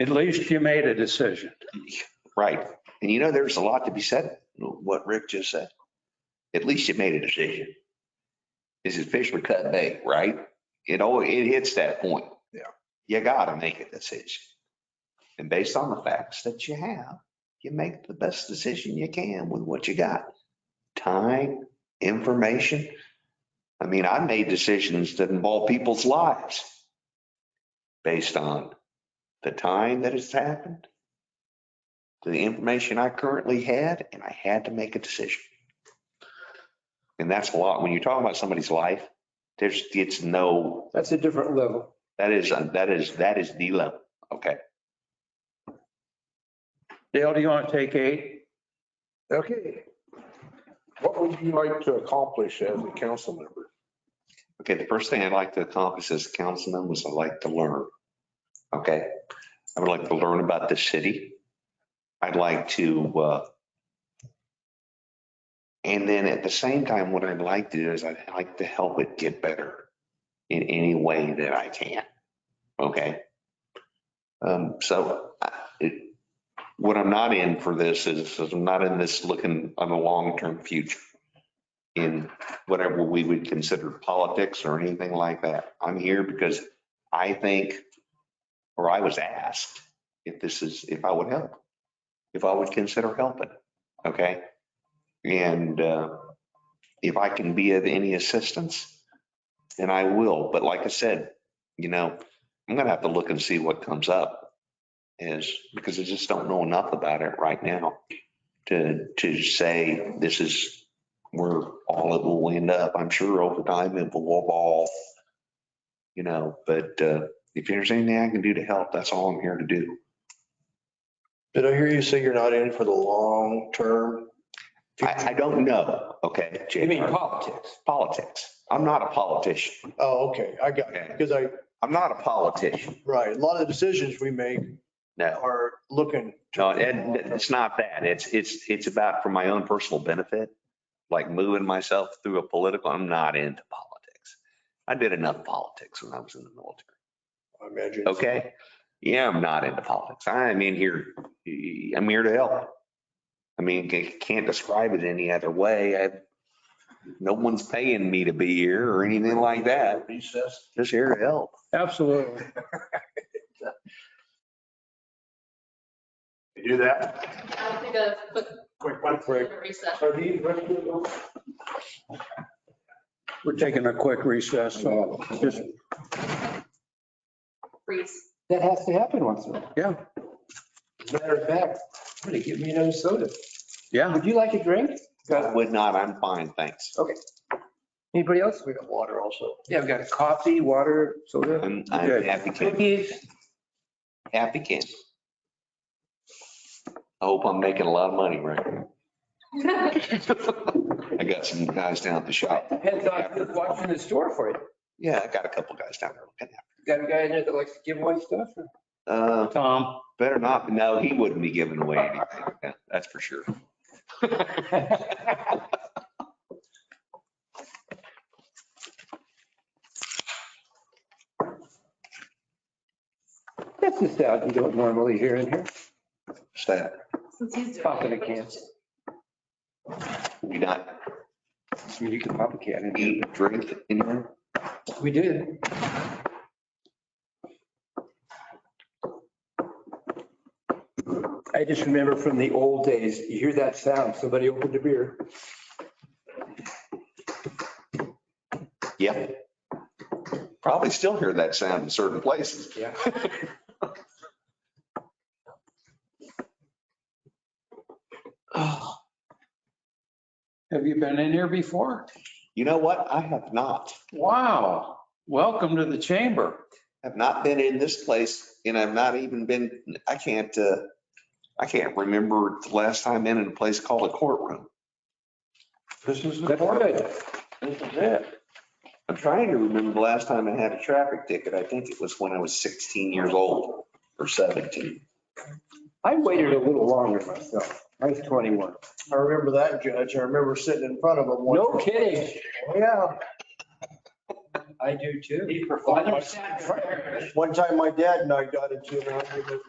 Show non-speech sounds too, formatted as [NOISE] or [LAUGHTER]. At least you made a decision. Right. And you know, there's a lot to be said, what Rick just said. At least you made a decision. This is fish or cut bait, right? It always, it hits that point. Yeah. You gotta make a decision. And based on the facts that you have, you make the best decision you can with what you got. Time, information. I mean, I made decisions that involve people's lives based on the time that it's happened, to the information I currently had, and I had to make a decision. And that's a lot. When you're talking about somebody's life, there's, it's no, That's a different level. that is, uh, that is, that is the level. Okay. Dale, do you want to take eight? Okay. What would you like to accomplish as a council member? Okay, the first thing I'd like to accomplish as a councilman was I'd like to learn. Okay, I would like to learn about the city. I'd like to, uh, and then at the same time, what I'd like to do is I'd like to help it get better in any way that I can. Okay? Um, so I- it, what I'm not in for this is, is I'm not in this looking on the long-term future in whatever we would consider politics or anything like that. I'm here because I think, or I was asked if this is, if I would help, if I would consider helping, okay? And uh, if I can be of any assistance, then I will. But like I said, you know, I'm gonna have to look and see what comes up is, because I just don't know enough about it right now to, to say this is where all it will end up. I'm sure over time it will evolve, you know, but uh, if there's anything I can do to help, that's all I'm here to do. Did I hear you say you're not in for the long term? I, I don't know, okay? You mean JR? politics? Politics. I'm not a politician. Oh, okay, I got it. Okay. Because I, I'm not a politician. right, a lot of the decisions we make No, are looking. to- no, and it's not that. It's, it's, it's about for my own personal benefit, like moving myself through a political, I'm not into politics. I did enough politics when I was in the military. I imagine. Okay. Yeah, I'm not into politics. I'm in here, I'm here to help. I mean, I can't describe it any other way. I, no one's paying me to be here or anything like that. Recess. Just here to help. Absolutely. You do that? I think a quick Quick one break. recess. Are these regular votes? We're taking a quick recess, so just, Freeze. That has to happen once in a while. yeah, Matter of fact, I'm gonna give me another soda. yeah. Would you like a drink? I Would not, I'm fine, thanks. Anybody else? we got water also. Yeah, we've got coffee, water, soda, I'm, I'm Good. happy, can- cookies. happy can. I hope I'm making a lot of money, Rick. I got some guys down at the shop. Depends on who's watching the store for you. Yeah, I got a couple guys down there. looking at Got a guy in there that likes to give away stuff. it. Uh, Tom, Better not. No, he wouldn't be giving away anything. Yeah, That's for sure. That's the sound you don't normally hear in here. What's that? [LAUGHS] Since he's doing Pop in a it. can. We not I mean, You can pop a can in here. eat, drink in here? We did. I just remember from the old days, you hear that sound, somebody opened a beer. Yep. Probably still hear that sound in certain places. Yeah. have you been in here before? You know what? I have not, Wow, welcome to the chamber. have not been in this place and I've not even been, I can't, uh, I can't remember the last time in a place called a courtroom. This is the That's good. This is it. I'm trying to remember the last time I had a traffic ticket. I think it was when I was 16 years old or 17. I waited a little longer myself. I was 21. I remember that judge. I remember sitting in front of him. one- No kidding. Yeah. I do too. One time my dad and I got into an argument